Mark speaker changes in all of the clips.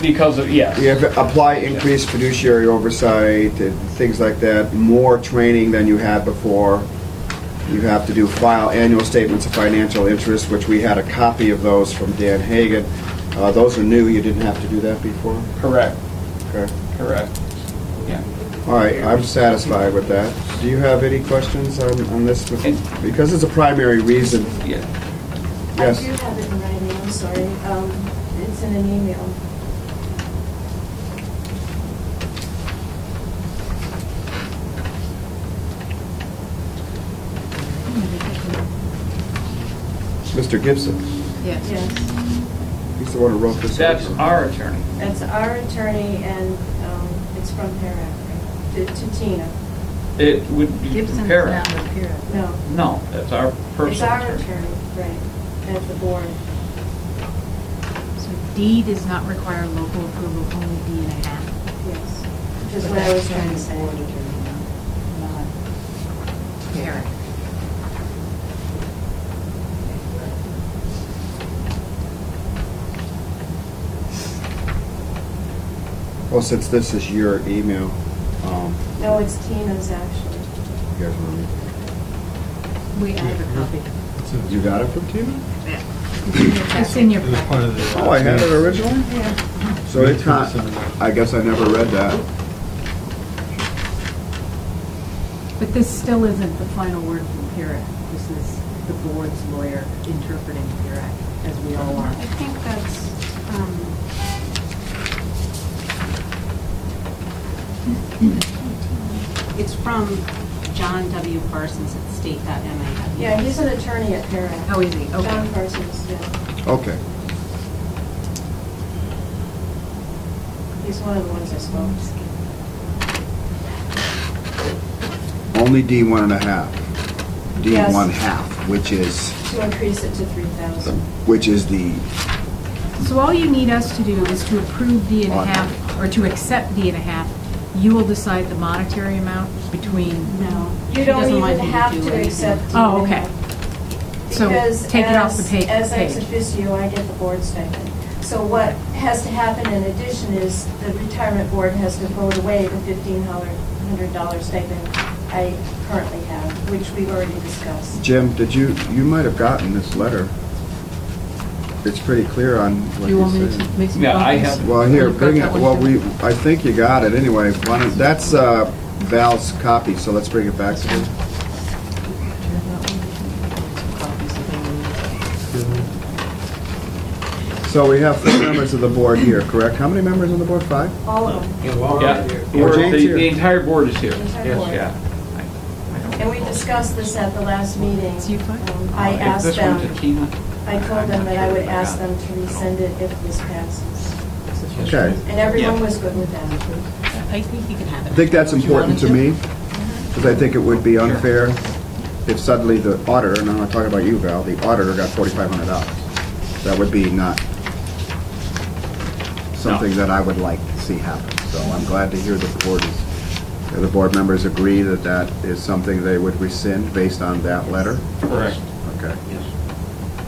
Speaker 1: because of, yes.
Speaker 2: You have to apply increased fiduciary oversight and things like that, more training than you had before. You have to do file annual statements of financial interest, which we had a copy of those from Dan Hagan. Uh, Those are new, you didn't have to do that before?
Speaker 1: Correct,
Speaker 2: Okay.
Speaker 1: correct. Yeah.
Speaker 2: All right, I'm satisfied with that. Do you have any questions on on this? Because it's a primary reason.
Speaker 1: Yeah.
Speaker 2: Yes.
Speaker 3: I do have it in writing, I'm sorry. Um, It's in an email.
Speaker 2: Mr. Gibson,
Speaker 4: Yes.
Speaker 3: Yes,
Speaker 2: he's the one who wrote this.
Speaker 1: That's our attorney.
Speaker 3: that's our attorney, and um, it's from Parrot, right? to to Tina.
Speaker 1: It would be
Speaker 4: Gibson's
Speaker 1: compare.
Speaker 4: not with Pyrrhic.
Speaker 3: No,
Speaker 1: No, that's our
Speaker 3: it's our
Speaker 1: personal attorney.
Speaker 3: attorney, right, at the board.
Speaker 4: So D does not require local approval, only D and a half.
Speaker 3: Yes, which is what I was trying to say.
Speaker 4: Not Pyrrhic.
Speaker 2: Well, since this is your email, um,
Speaker 3: No, it's Tina's, actually.
Speaker 2: you guys want
Speaker 4: We, I have a copy.
Speaker 2: to- You got it from Tina?
Speaker 4: Yeah. It's in your
Speaker 5: It was part
Speaker 4: packet.
Speaker 5: of the.
Speaker 2: Oh, I had it originally? So it's not, I guess I never read that.
Speaker 4: But this still isn't the final word from Pyrrhic. This is the board's lawyer interpreting Pyrrhic, as we all are.
Speaker 6: I think that's, um, it's from John W. Parsons at state.ma.
Speaker 3: Yeah, he's an attorney at Parrot.
Speaker 4: Oh, is he? Okay.
Speaker 3: John Parsons, yeah.
Speaker 2: Okay.
Speaker 3: He's one of the ones I spoke to.
Speaker 2: Only D one and a half. D
Speaker 3: Yes.
Speaker 2: one half, which is,
Speaker 3: To increase it to 3,000.
Speaker 2: which is the,
Speaker 4: So all you need us to do is to approve D and a half, or to accept D and a half. You will decide the monetary amount between,
Speaker 6: No.
Speaker 3: You
Speaker 6: she
Speaker 3: don't
Speaker 6: doesn't want
Speaker 3: even
Speaker 6: you
Speaker 3: have
Speaker 6: do
Speaker 3: to
Speaker 6: anything.
Speaker 3: accept.
Speaker 4: Oh,
Speaker 3: even
Speaker 4: okay.
Speaker 3: that.
Speaker 4: So
Speaker 3: Because
Speaker 4: take it off the
Speaker 3: as-
Speaker 4: pa-
Speaker 3: As ex
Speaker 4: page.
Speaker 3: officio, I get the board stipend. So what has to happen in addition is the retirement board has to vote away the fifteen hundred dollar stipend I currently have, which we've already discussed.
Speaker 2: Jim, did you, you might have gotten this letter. It's pretty clear on
Speaker 4: do
Speaker 2: what
Speaker 4: you
Speaker 2: you
Speaker 4: want me to
Speaker 2: said.
Speaker 4: make some copies?
Speaker 1: Yeah, I have-
Speaker 2: Well, here,
Speaker 4: You've got
Speaker 2: bring it,
Speaker 4: that one
Speaker 2: well,
Speaker 4: too?
Speaker 2: we, I think you got it anyway. Why don't- That's uh, Val's copy, so let's bring it back to him. So we have four members of the board here, correct? How many members on the board? Five?
Speaker 3: All of them,
Speaker 1: Yeah,
Speaker 2: Or
Speaker 1: We're-
Speaker 2: Jane's
Speaker 1: the,
Speaker 2: here.
Speaker 1: the entire board is here.
Speaker 3: the entire board.
Speaker 1: Yeah. I- I don't
Speaker 3: And we
Speaker 1: recall.
Speaker 3: discussed this at the last meeting.
Speaker 4: It's you, Clark?
Speaker 3: Um, I
Speaker 1: If
Speaker 3: asked
Speaker 1: this went to
Speaker 3: them,
Speaker 1: Tina,
Speaker 3: I
Speaker 1: I'm
Speaker 3: told
Speaker 1: not
Speaker 3: them that I
Speaker 1: sure
Speaker 3: would
Speaker 1: if I
Speaker 3: ask
Speaker 1: got
Speaker 3: them to
Speaker 1: it.
Speaker 3: resend it if this passes.
Speaker 2: Okay.
Speaker 3: And everyone
Speaker 1: Yeah.
Speaker 3: was good with that.
Speaker 6: I think you can have
Speaker 2: I
Speaker 6: it.
Speaker 2: think that's
Speaker 6: If you wanted
Speaker 2: important to me, because I think it would be unfair if suddenly the auditor, and I'm not talking about you, Val, the auditor got forty-five hundred dollars. That would be not something that I would like to see happen. So I'm glad to hear the board is, that the board members agree that that is something they would rescind based on that letter.
Speaker 1: Correct.
Speaker 2: Okay.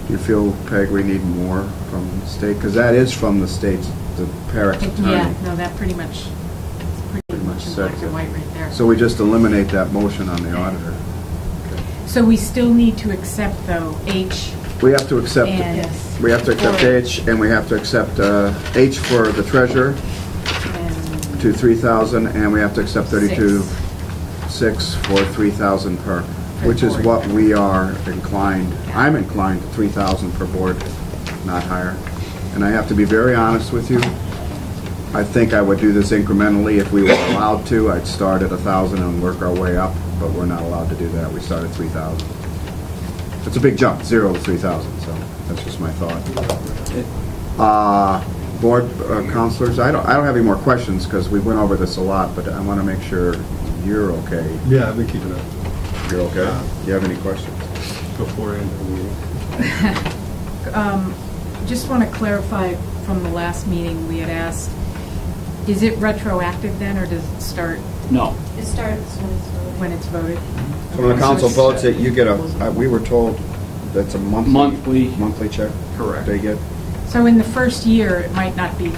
Speaker 2: Do you feel, Peg, we need more from the state? Because that is from the state's, the Parrot attorney.
Speaker 4: Yeah, no, that pretty much, it's pretty
Speaker 2: Pretty much
Speaker 4: much in black
Speaker 2: sets it.
Speaker 4: and white right there.
Speaker 2: So we just eliminate that motion on the auditor.
Speaker 4: So we still need to accept, though, H
Speaker 2: We have to accept,
Speaker 4: and,
Speaker 3: Yes.
Speaker 2: we have to accept H, and we have to accept uh, H for the treasurer
Speaker 4: and
Speaker 2: to 3,000, and we have to accept 32,
Speaker 4: Six.
Speaker 2: 6 for 3,000 per,
Speaker 4: Per
Speaker 2: which is
Speaker 4: board.
Speaker 2: what we are inclined, I'm inclined to 3,000 per board, not higher. And I have to be very honest with you, I think I would do this incrementally if we were allowed to. I'd start at 1,000 and work our way up, but we're not allowed to do that. We start at 3,000. It's a big jump, zero to 3,000, so that's just my thought. Uh, Board uh, counselors, I don't, I don't have any more questions because we went over this a lot, but I want to make sure you're okay.
Speaker 5: Yeah, I've been keeping up
Speaker 2: You're okay? Do you have any questions?
Speaker 5: before and after the meeting.
Speaker 4: um, just want to clarify from the last meeting, we had asked, is it retroactive then, or does it start
Speaker 1: No.
Speaker 3: It starts when it's over.
Speaker 4: when it's voted?
Speaker 2: So When the council
Speaker 4: So
Speaker 2: votes
Speaker 4: it's-
Speaker 2: it, you get a, uh, we were told that's a monthly.
Speaker 1: Monthly.
Speaker 2: Monthly check
Speaker 1: Correct.
Speaker 2: they get.
Speaker 4: So in the first year, it might not be